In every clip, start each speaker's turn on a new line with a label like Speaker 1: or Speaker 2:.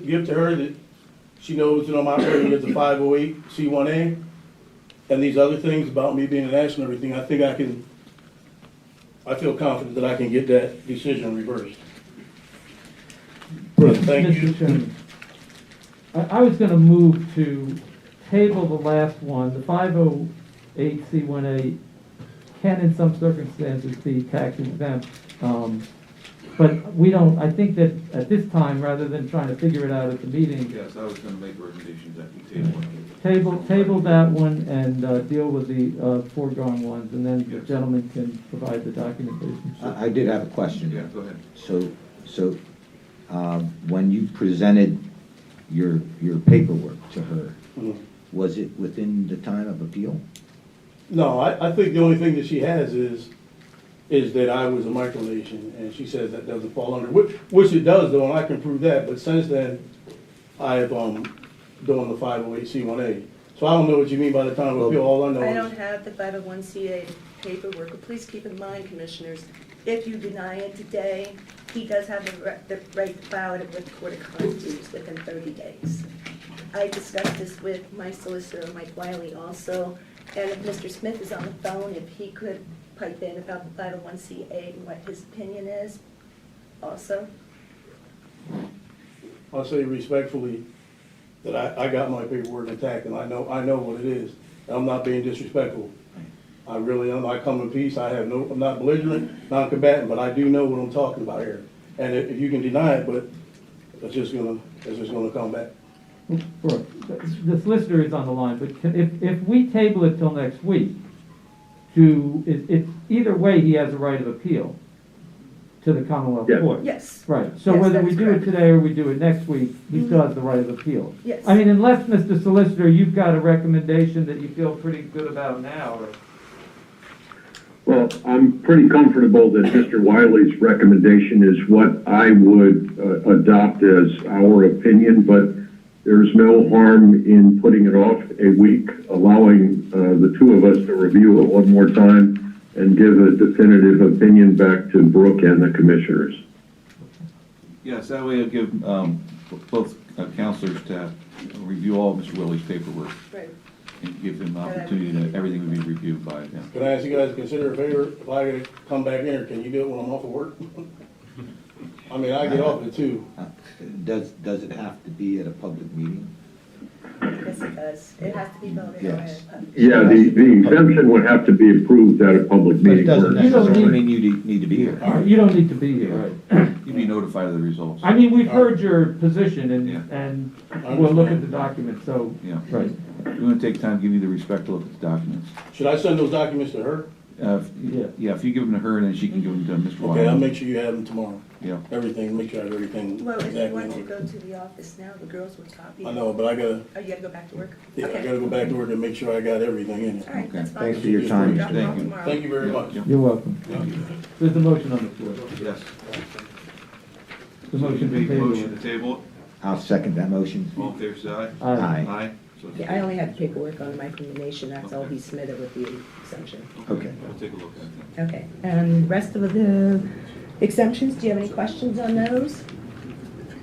Speaker 1: give to her that she knows that I'm operating as a five oh eight C one A. And these other things about me being an ash and everything, I think I can, I feel confident that I can get that decision reversed. Thank you.
Speaker 2: Mr. Chairman, I, I was gonna move to table the last one, the five oh eight C one A can in some circumstances be tax exempt. Um, but we don't, I think that at this time, rather than trying to figure it out at the meeting,
Speaker 3: Yes, I was gonna make recommendations that we table. it.
Speaker 2: table, table that one and, uh, deal with the, uh, foregone ones, and then the
Speaker 3: Yes.
Speaker 2: gentleman can provide the documentation.
Speaker 4: I I did have a question.
Speaker 3: Yeah, go ahead.
Speaker 4: So, so, um, when you presented your, your paperwork to her,
Speaker 1: Mm-hmm.
Speaker 4: was it within the time of appeal?
Speaker 1: No, I, I think the only thing that she has is, is that I was a micronation, and she says that doesn't fall under, which, which it does though, and I can prove that, but since then, I have, um, done the five oh eight C one A. So I don't know what you mean by the time of appeal, all I know is.
Speaker 5: I don't have the 501CA paperwork, but please keep in mind, Commissioners, if you deny it today, he does have the re- the right to file it with Court of Claims within 30 days. I discussed this with my solicitor, Mike Wiley, also, and if Mr. Smith is on the phone, if he could pipe in about the 501CA and what his opinion is also.
Speaker 1: I'll say respectfully that I, I got my paperwork intact and I know, I know what it is. I'm not being disrespectful. I really am. I come in peace. I have no, I'm not belligerent, non-combatant, but I do know what I'm talking about here. And if, if you can deny it, but it's just gonna, it's just gonna come back.
Speaker 2: Brooke, the solicitor is on the line, but can- if, if we table it till next week, to, it, it, either way, he has a right of appeal to the Commonwealth
Speaker 6: Yes.
Speaker 2: Court.
Speaker 5: Yes.
Speaker 2: Right, so
Speaker 5: Yes,
Speaker 2: whether
Speaker 5: that
Speaker 2: we
Speaker 5: is
Speaker 2: do it
Speaker 5: correct. Mm-hmm.
Speaker 2: today or we do it next week, he still has the right of appeal.
Speaker 5: Yes.
Speaker 2: I mean, unless, Mr. Solicitor, you've got a recommendation that you feel pretty good about now, or,
Speaker 6: Well, I'm pretty comfortable that Mr. Wiley's recommendation is what I would uh, adopt as our opinion, but there's no harm in putting it off a week, allowing uh, the two of us to review it one more time and give a definitive opinion back to Brooke and the commissioners.
Speaker 3: Yes, that way it'll give um, b- both uh, counselors to review all of Mr. Willie's paperwork
Speaker 5: Right.
Speaker 3: and give him an opportunity that everything would be reviewed by them.
Speaker 1: Can I ask you guys to consider a favor? If I gotta come back in here, can you do it when I'm off of work? I mean, I get off at two.
Speaker 4: Uh, Does, does it have to be at a public meeting?
Speaker 5: Yes, it does. It has to be voted on.
Speaker 4: Yes.
Speaker 6: Yeah, the, the exemption would have to be approved at a public
Speaker 4: But it
Speaker 6: meeting.
Speaker 4: doesn't
Speaker 6: first.
Speaker 4: necessarily mean you de- need to be here.
Speaker 2: you don't need to be here.
Speaker 3: You'd be notified of the results.
Speaker 2: I mean, we've heard your position
Speaker 3: Uh, Yeah.
Speaker 2: and, and we'll look at the document, so,
Speaker 3: Yeah,
Speaker 2: right.
Speaker 3: we want to take time, give you the respect to look at the documents.
Speaker 1: Should I send those documents to her?
Speaker 3: Uh, if-
Speaker 2: Yeah.
Speaker 3: Yeah, if you give them to her, then she can give them to Mr.
Speaker 1: Okay, I'll
Speaker 3: Wiley.
Speaker 1: make sure you have them tomorrow.
Speaker 3: Yeah,
Speaker 1: Everything, make sure I have everything.
Speaker 5: Well, if
Speaker 1: exactly
Speaker 5: you
Speaker 1: in
Speaker 5: want to
Speaker 1: order.
Speaker 5: go to the office now, the girls would copy.
Speaker 1: I know, but I gotta,
Speaker 5: Oh, you gotta go back to work?
Speaker 1: yeah, I
Speaker 5: Okay.
Speaker 1: gotta go back to work and make sure I got everything in it.
Speaker 5: All right, that's fine.
Speaker 4: Thanks for your time.
Speaker 5: Drop them off
Speaker 3: Thank you.
Speaker 5: tomorrow.
Speaker 1: Thank you very much.
Speaker 3: Yeah.
Speaker 2: You're welcome. There's a motion on the floor.
Speaker 3: yes.
Speaker 2: The motion to
Speaker 3: Make a
Speaker 2: table
Speaker 3: Motion
Speaker 2: it.
Speaker 3: to table,
Speaker 4: I'll second that motion.
Speaker 3: it. all in favor, say aye.
Speaker 2: Aye.
Speaker 4: Aye.
Speaker 3: So
Speaker 5: Yeah, I only had paperwork on the micronation, that's all he submitted with the exemption.
Speaker 4: Okay.
Speaker 3: We'll take a look at that.
Speaker 5: Okay, and rest of the exemptions, do you have any questions on those?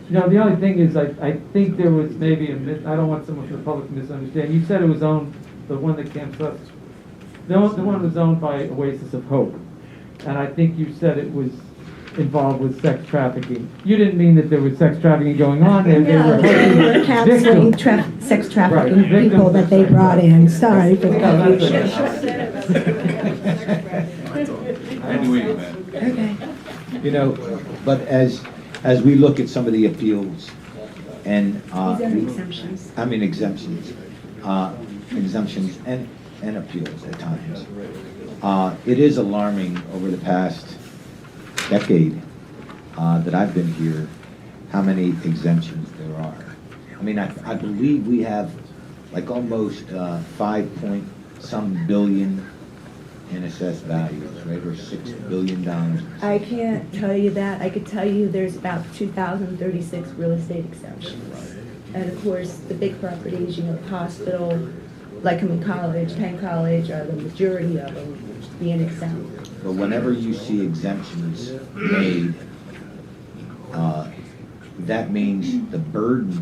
Speaker 2: No, the only thing is, I, I think there was maybe a mis, I don't want someone from the public to misunderstand. You said it was owned, the one that came to us, the one, the one was owned by Oasis of Hope. And I think you said it was involved with sex trafficking. You didn't mean that there was sex trafficking going on, they, they were
Speaker 7: No, they were
Speaker 2: helping
Speaker 7: counseling
Speaker 2: victims.
Speaker 7: tra- sex
Speaker 2: Right,
Speaker 7: trafficking
Speaker 2: victims.
Speaker 7: people that they brought in, sorry for the
Speaker 2: No, that's
Speaker 7: confusion.
Speaker 2: okay.
Speaker 3: Anyway, man.
Speaker 7: Okay.
Speaker 4: You know, but as, as we look at some of the appeals and, uh,
Speaker 5: These are exemptions.
Speaker 4: I mean exemptions, uh, exemptions and, and appeals at times. Uh, It is alarming over the past decade uh, that I've been here, how many exemptions there are. I mean, I, I believe we have like almost uh, five point some billion in assessed values, right, or six billion dollars.
Speaker 5: I can't tell you that, I could tell you there's about two thousand thirty-six real estate exemptions. And of course, the big properties, you know, the hospital, like I'm in college, Penn College, are the majority of them being exempt.
Speaker 4: But whenever you see exemptions made, uh, that means the burden